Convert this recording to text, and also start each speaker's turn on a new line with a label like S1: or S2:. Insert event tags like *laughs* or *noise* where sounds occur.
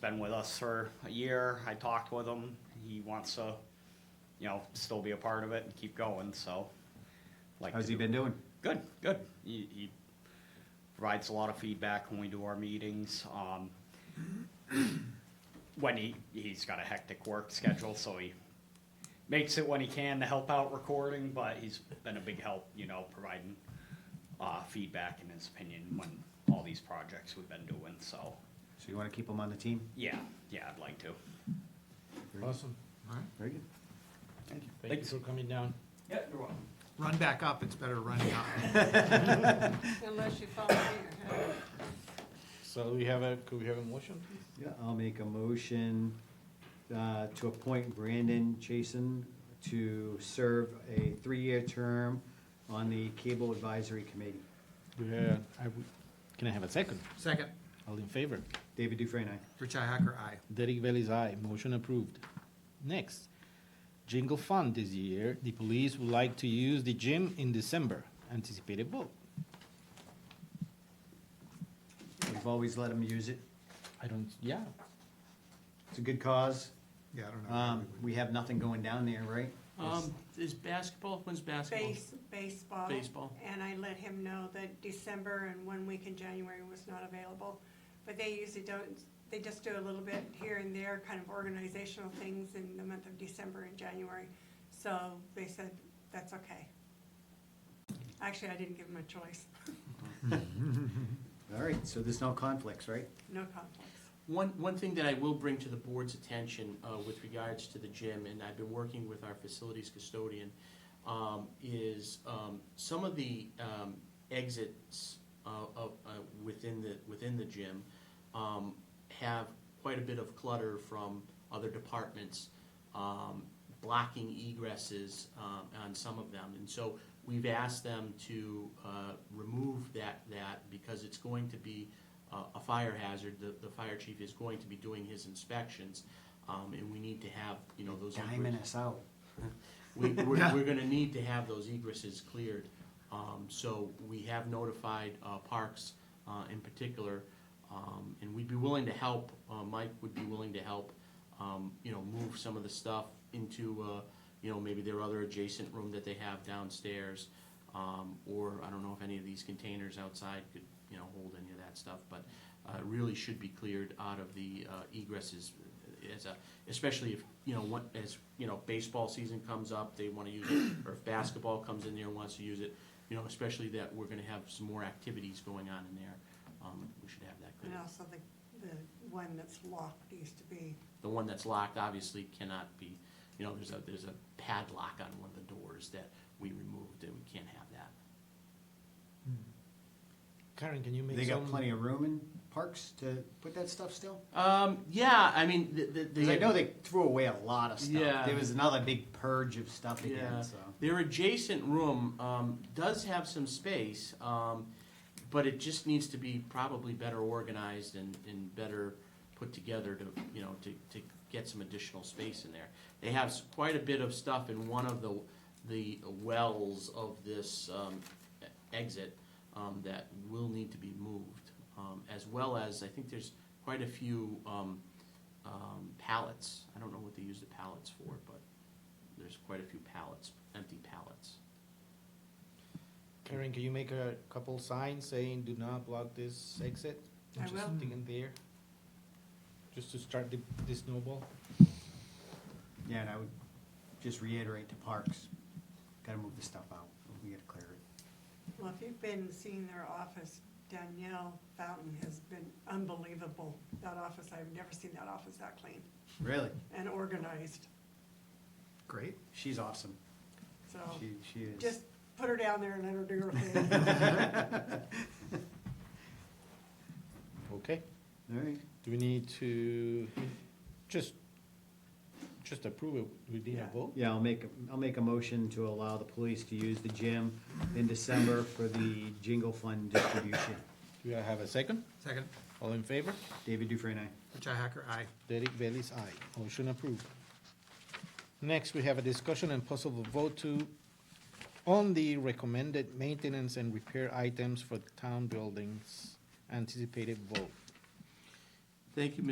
S1: been with us for a year. I talked with him. He wants to, you know, still be a part of it and keep going, so. like
S2: How's
S1: to
S2: he
S1: do-
S2: been doing?
S1: Good, good. He, he provides a lot of feedback when we do our meetings. Um, *clears throat* when he, he's got a hectic work schedule, so he makes it when he can to help out recording, but he's been a big help, you know, providing uh, feedback and his opinion when all these projects we've been doing, so.
S2: So you want to keep him on the team?
S1: Yeah, yeah, I'd like to.
S3: Awesome.
S2: Very good.
S3: Thank you for coming down.
S1: Yeah, you're welcome.
S4: Run back up, it's better running up.
S5: Unless you follow me.
S3: So we have a, could we have a motion, please?
S2: Yeah, I'll make a motion uh, to appoint Brandon Chason to serve a three-year term on the Cable Advisory Committee.
S3: Yeah, I would- Can I have a second?
S4: Second,
S3: All in favor?
S2: David Dufresne, aye.
S4: Richi Hacker, aye.
S3: Derek Bailey's aye. Motion approved. Next, jingle fund this year. The police would like to use the gym in December. Anticipated vote.
S2: We've always let him use it.
S3: I don't, yeah.
S2: It's a good cause.
S4: Yeah, I don't know.
S2: Um, We have nothing going down there, right?
S6: Um, is basketball, when's basketball?
S5: Base, baseball.
S6: Baseball.
S5: And I let him know that December and one week in January was not available. But they usually don't, they just do a little bit here and there, kind of organizational things in the month of December and January. So they said, that's okay. Actually, I didn't give him a choice,
S2: All right, so there's no conflicts, right?
S5: no conflicts.
S6: One, one thing that I will bring to the board's attention uh, with regards to the gym, and I've been working with our facilities custodian, um, is um, some of the um, exits uh, of, uh, within the, within the gym um, have quite a bit of clutter from other departments um, blocking egresses um, on some of them. And so we've asked them to uh, remove that, that because it's going to be uh, a fire hazard. The, the fire chief is going to be doing his inspections, um, and we need to have, you know, those.
S2: Diamond
S6: egresses-
S2: us out.
S6: we, we're, we're gonna need to have those egresses cleared. Um, so we have notified, uh, parks, uh, in particular, um, and we'd be willing to help, uh, Mike would be willing to help, um, you know, move some of the stuff into, uh, you know, maybe their other adjacent room that they have downstairs. Um, or I don't know if any of these containers outside could, you know, hold any of that stuff, but, uh, it really should be cleared out of the, uh, egresses as a, especially if, you know, what, as, you know, baseball season comes up, they wanna use it, or if basketball comes in there and wants to use it, you know, especially that we're gonna have some more activities going on in there, um, we should have that
S5: And
S6: clear.
S5: also the, the one that's locked used to be,
S6: The one that's locked obviously cannot be, you know, there's a, there's a padlock on one of the doors that we removed, and we can't have that.
S3: Karen, can you make
S2: They got
S3: some?
S2: plenty of room in parks to put that stuff still?
S6: Um, yeah, I mean, the, the.
S2: Because I know they threw away a lot of stuff.
S6: Yeah.
S2: There was another big purge of stuff
S6: Yeah.
S2: again, so.
S6: Their adjacent room um, does have some space, um, but it just needs to be probably better organized and, and better put together to, you know, to, to get some additional space in there. They have s- quite a bit of stuff in one of the, the wells of this um, e- exit um, that will need to be moved, um, as well as, I think there's quite a few um, um, pallets. I don't know what they use the pallets for, but there's quite a few pallets, empty pallets.
S3: Karen, can you make a couple signs saying do not block this exit?
S5: I
S3: Just
S5: will.
S3: Something in there, just to start the, the snowball.
S2: Yeah, and I would just reiterate to parks, gotta move the stuff out, we gotta clear it.
S5: well, if you've been seeing their office, Danielle Fountain has been unbelievable. That office, I've never seen that office that clean
S2: Really?
S5: and organized,
S4: Great.
S2: She's awesome.
S5: so.
S2: She, she is.
S5: Oh. Just *laughs* put her down there and let her do her thing.
S3: Okay.
S2: *laughs* All right,
S3: Do we need to, just, just approve it, we need a
S5: Yeah.
S3: vote?
S2: yeah, I'll make, a- I'll make a motion to allow the police to use the gym in December for the jingle fund distribution.
S3: Do I have a second?
S4: Second,
S3: All in favor?
S2: David Dufresne, aye.
S4: Richi Hacker, aye.
S3: Derek Bailey's aye. Motion approved. Next, we have a discussion and possible vote to, on the recommended maintenance and repair items for the town buildings. Anticipated vote.
S6: Thank you, Mr.